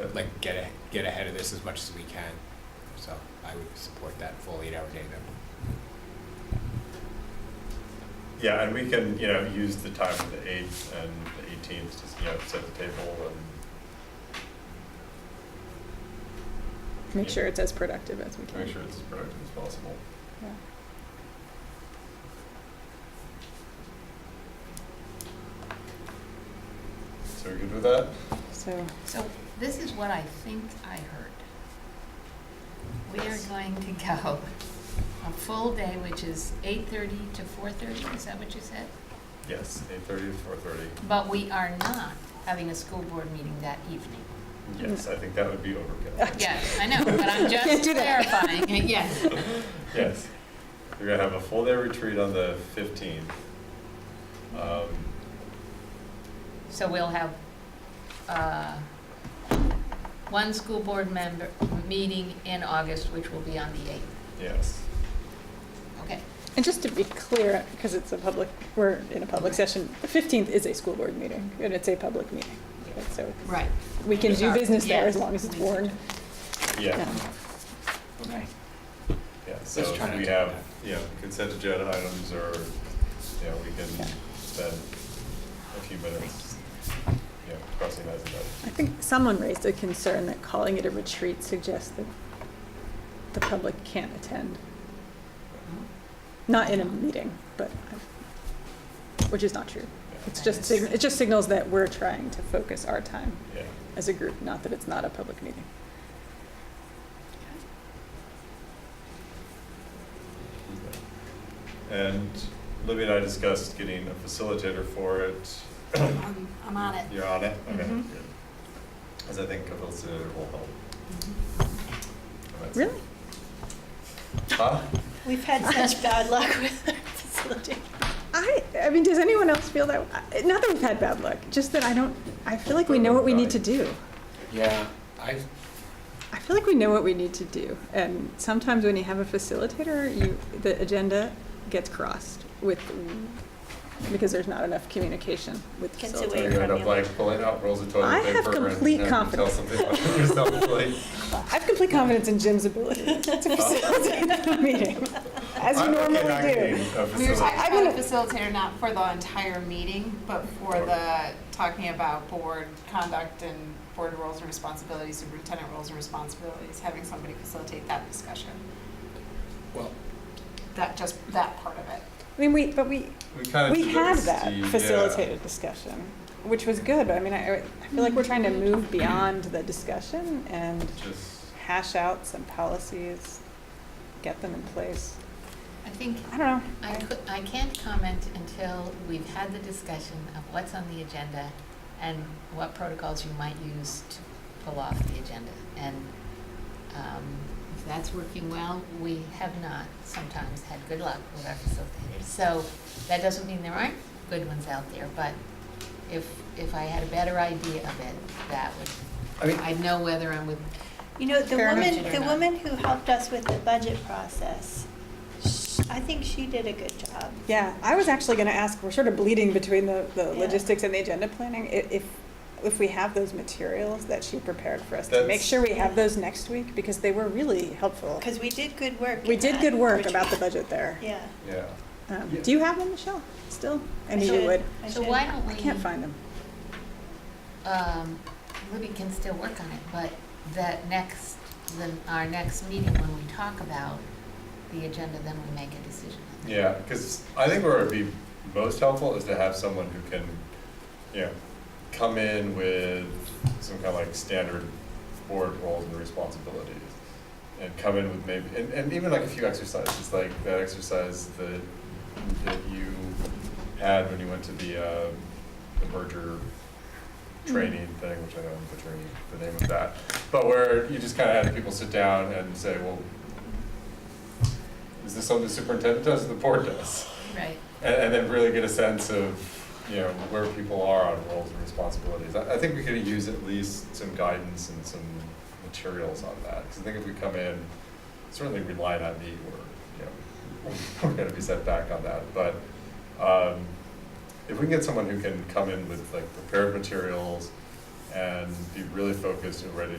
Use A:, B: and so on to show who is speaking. A: uh, like get, a- get ahead of this as much as we can. So I would support that full eight-hour day then.
B: Yeah, and we can, you know, use the time of the eighth and the eighteenth, just, you know, set the table
C: Make sure it's as productive as we
B: and
C: can.
B: make sure it's as productive as possible.
C: Yeah.
B: So you're good with that?
C: So,
D: So this is what I think I heard. We are going to go a full day, which is eight-thirty to four-thirty, is that what you said?
B: Yes, eight thirty to four thirty.
D: But we are not having a school board meeting that evening.
B: Yes, I think that would be overkill.
D: Yes, I know, but I'm
C: Can't
D: just
C: do that.
D: clarifying, yes.
B: Yes. We're gonna have a full day retreat on the fifteenth. Um,
D: So we'll have, uh, one school board member, meeting in August, which will be on the eighth.
B: yes,
D: Okay,
C: and just to be clear, because it's a public, we're in a public session, the 15th is a school board meeting, and it's a public meeting. Right, So
D: right.
C: we can do
D: Sorry.
C: business there
D: Yeah.
C: as long as it's warned.
B: yeah,
C: Yeah.
B: yeah. So
A: Let's try not
B: if we
A: to
B: have,
A: do
B: you know, consent agenda items or, you know, we
C: Yeah.
B: can spend a few minutes, you know, crossing eyes and that.
C: I think someone raised a concern that calling it a retreat suggests that the public can't attend, not in a meeting, but, which is not true. It's just, sig- it just signals that we're trying to focus our time
B: Yeah,
C: as a group, not that it's not a public meeting.
B: and Libby and I discussed getting a facilitator for it.
E: I'm, I'm on it.
B: You're on it? Okay,
C: Mm-hmm.
B: good.
E: Mhm.
B: Because I think a facilitator will help.
D: Mm-hmm.
B: That's-
C: Really?
B: Huh?
E: We've had such bad luck with facilitating.
C: I, I mean, does anyone else feel that, I- not that we've had bad luck, just that I don't, I feel like we know what we need to do.
A: Yeah, I,
C: I feel like we know what we need to do, and sometimes when you have a facilitator, you, the agenda gets crossed with, because there's not enough communication with
E: Gets
C: facilitators.
E: away.
B: You end up like pulling out rolls of
C: I
B: toilet
C: have
B: paper and
C: complete
B: you know, you tell
C: confidence.
B: something about yourself, like,
C: I have complete confidence in Jim's ability to facilitate the meeting, as you
B: I'm not
C: normally
B: getting
C: do.
B: a
F: We were
B: facilitator.
F: talking about a facilitator, not for the entire meeting, but for the, talking about board conduct and board roles and responsibilities, superintendent roles and responsibilities, having somebody facilitate that discussion,
A: well,
F: that, just that part of it.
C: I mean, we, but we,
B: We kind of.
C: we
B: did
C: had
B: this,
C: that
B: yeah.
C: facilitated discussion, which was good, but I mean, I, I feel like we're trying to move beyond the discussion and
B: Just,
C: hash out some policies, get them in place.
D: I think
C: I don't know.
D: I could, I can't comment until we've had the discussion of what's on the agenda and what protocols you might use to pull off the agenda. And, um, if that's working well, we have not sometimes had good luck with our facilitators. So that doesn't mean there aren't good ones out there, but if, if I had a better idea of it, that
A: I
D: would,
A: mean-
D: I'd know whether I'm with,
E: You know, the
D: Fair
E: woman,
D: budget or
E: the
D: not.
E: woman who helped us with the budget process, sh- I think she did a good job.
C: Yeah, I was actually gonna ask, we're sort of bleeding between the, the
E: Yeah.
C: logistics and the agenda planning, i- if, if we have those materials that she prepared for us, to make
B: That's-
C: sure we have those next week, because they were really helpful.
E: Because we did good work.
C: We
E: in
C: did
E: that
C: good work
E: retreat.
C: about the budget there.
E: Yeah.
B: yeah.
C: Um,
A: Yeah.
C: do you have them, Michelle, still? I
E: I
C: knew you
E: should-
C: would.
E: I
D: so
E: should.
D: why don't we?
C: I can't find them.
D: um, Libby can still work on it, but that next, then our next meeting, when we talk about the agenda, then we make a decision.
B: Yeah, because I think where it'd be most helpful is to have someone who can, you know, come in with some kind of like standard board roles and responsibilities. And come in with maybe, and, and even like a few exercises, like that exercise that, that you had when you went to the, um, the merger training thing, which I know I'm butchering the name of that. But where you just kind of had people sit down and say, well, is this something the superintendent does or the board does?
D: Right.
B: And, and then really get a sense of, you know, where people are on roles and responsibilities. I, I think we could use at least some guidance and some materials on that, because I think if we come in, certainly relying on me, we're, you know, we're gonna be set back on that, but, um, if we can get someone who can come in with like prepared materials, and be really focused and ready to